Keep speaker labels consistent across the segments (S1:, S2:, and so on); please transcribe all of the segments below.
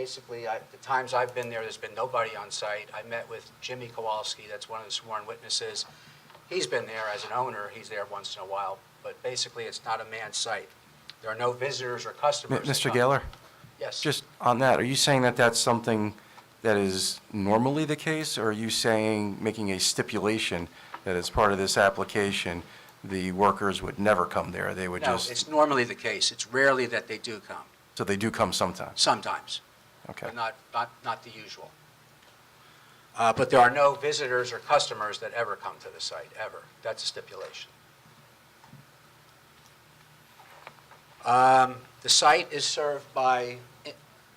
S1: basically, I, the times I've been there, there's been nobody on site. I met with Jimmy Kowalski, that's one of the sworn witnesses. He's been there as an owner, he's there once in a while, but basically, it's not a manned site. There are no visitors or
S2: M-
S1: customers. that
S2: Mr.
S1: come.
S2: Gaylor,
S1: Yes.
S2: just on that, are you saying that that's something that is normally the case? Or are you saying, making a stipulation that as part of this application, the workers would never come there? They would
S1: No,
S2: just,
S1: it's normally the case. It's rarely that they do come,
S2: so they do come sometimes?
S1: sometimes.
S2: Okay.
S1: but not, not, not the usual. Uh, But there are no visitors or customers that ever come to the site, ever. That's a stipulation. Um, The site is served by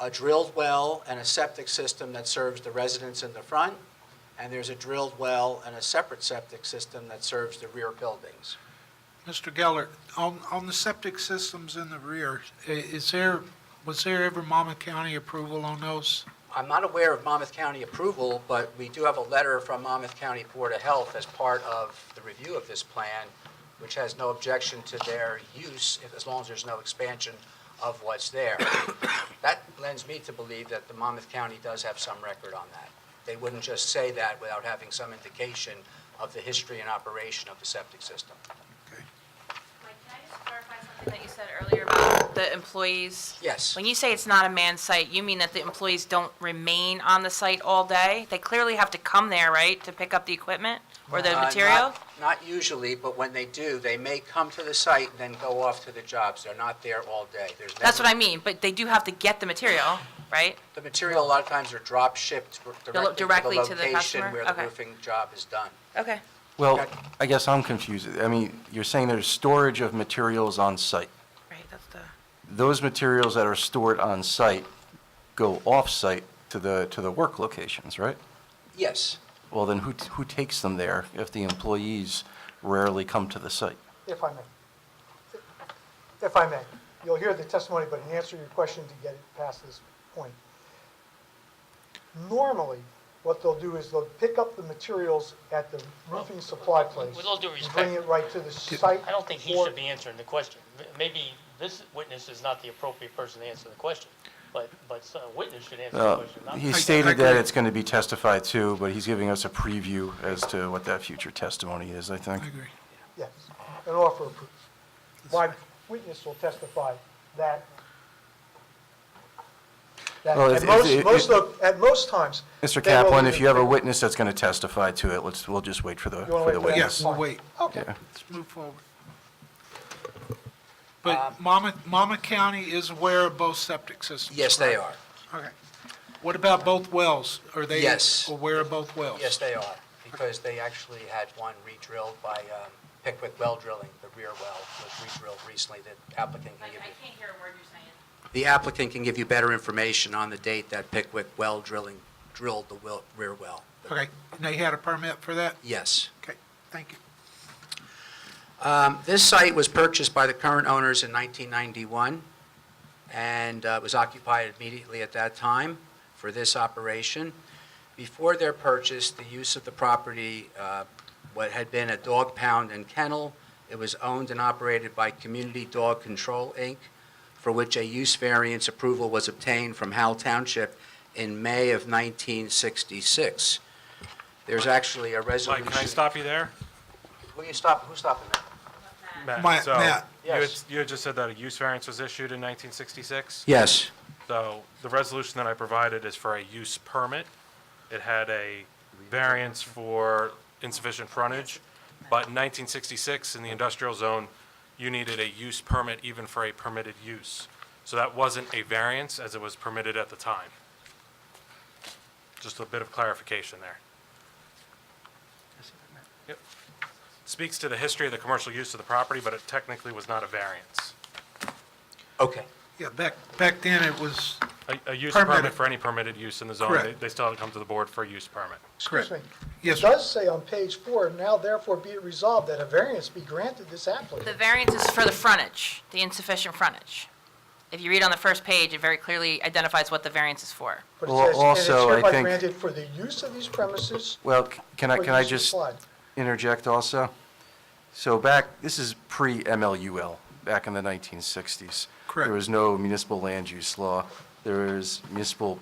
S1: a drilled well and a septic system that serves the residents in the front, and there's a drilled well and a separate septic system that serves the rear buildings.
S3: Mr. Geller, on, on the septic systems in the rear, i- is there, was there ever Monmouth County approval on those?
S1: I'm not aware of Monmouth County approval, but we do have a letter from Monmouth County Board of Health as part of the review of this plan, which has no objection to their use, if- as long as there's no expansion of what's there. That lends me to believe that the Monmouth County does have some record on that. They wouldn't just say that without having some indication of the history and operation of the septic system.
S4: Mike, can I just clarify something that you said earlier about the employees?
S1: Yes.
S4: When you say it's not a manned site, you mean that the employees don't remain on the site all day? They clearly have to come there, right, to pick up the equipment or the
S1: Uh, not-
S4: material?
S1: Not usually, but when they do, they may come to the site and then go off to the jobs. They're not there all day. There's
S4: That's
S1: never-
S4: what I mean, but they do have to get the material, right?
S1: The material, a lot of times, are drop shipped directly to the
S4: directly to the
S1: location
S4: customer?
S1: where the
S4: Okay.
S1: roofing job is done.
S4: Okay.
S2: Well, I guess I'm confused. I mean, you're saying there's storage of materials on site.
S4: Right, that's the,
S2: Those materials that are stored on site go off-site to the, to the work locations, right?
S1: Yes,
S2: Well, then who, who takes them there if the employees rarely come to the site?
S5: If I may. If I may. You'll hear the testimony, but in answer to your question to get it past this point. Normally, what they'll do is they'll pick up the materials at the roofing supply place.
S6: with all due
S5: and Bring
S6: respect,
S5: it right to the site.
S6: I don't think he
S5: for-
S6: should be answering the question. M- Maybe this witness is not the appropriate person to answer the question, but, but a witness should answer the
S2: Uh,
S6: question, not
S2: He
S3: I- I
S2: stated
S3: agree.
S2: that it's going to be testified to, but he's giving us a preview as to what that future testimony is, I think.
S3: I agree.
S5: Yes, an offer of proof. My witness will testify that, that
S2: Well, if-
S5: at
S2: if-
S5: most,
S2: if-
S5: most of, at most times.
S2: Mr.
S5: they will
S2: Kaplan,
S5: leave
S2: if you have a
S5: it-
S2: witness that's going to testify to it, let's, we'll just wait for the,
S5: You wanna
S2: for the
S5: wait for that?
S2: witness.
S3: Yes, we'll wait.
S5: Okay.
S2: Yeah.
S3: Let's move forward. But Monmouth, Monmouth County is aware of both septic systems?
S1: yes, they
S3: correct?
S1: are.
S3: Okay. What about both wells? Are they
S1: Yes.
S3: aware of both wells?
S1: Yes, they are, because they actually had one re-drilled by um, Pickwick Well Drilling. The rear well was re-drilled recently. The applicant can
S4: Mike,
S1: give
S4: I
S1: you,
S4: can't hear a word you're saying.
S1: the applicant can give you better information on the date that Pickwick Well Drilling drilled the well- rear well.
S3: Okay, and they had a permit for that?
S1: Yes.
S3: Okay, thank you.
S1: Um, This site was purchased by the current owners in 1991, and uh, was occupied immediately at that time for this operation. Before their purchase, the use of the property, uh, what had been a dog pound and kennel, it was owned and operated by Community Dog Control, Inc., for which a use variance approval was obtained from Howell Township in May of 1966. There's actually a resolution...
S7: Mike, can I stop you there?
S1: Who you stop, who's stopping that?
S3: Matt,
S7: so
S3: Matt.
S7: You had,
S1: Yes.
S7: you had just said that a use variance was issued in 1966.
S1: Yes.
S7: So the resolution that I provided is for a use permit. It had a variance for insufficient frontage, but in 1966, in the industrial zone, you needed a use permit even for a permitted use. So that wasn't a variance as it was permitted at the time. Just a bit of clarification there. Yep. Speaks to the history of the commercial use of the property, but it technically was not a variance.
S1: Okay.
S3: Yeah, back, back then it was,
S7: A, a use
S3: Permitted.
S7: permit for any permitted use in the zone, they,
S3: Correct.
S7: they still have to come to the board for a use permit.
S5: Excuse me.
S3: yes,
S5: It does say on page four, now therefore be it resolved that a variance be granted this
S4: The
S5: applicant.
S4: variance is for the frontage, the insufficient frontage. If you read on the first page, it very clearly identifies what the variance is for.
S5: But it
S2: Well,
S5: says, and it's
S2: also, I
S5: hereby
S2: think-
S5: granted for the use of these premises.
S2: Well, c- can I,
S5: for
S2: can I
S5: use
S2: just
S5: supplied.
S2: interject also? So back, this is pre-MLUL, back in the 1960s.
S3: Correct.
S2: There was no municipal land use law. There's municipal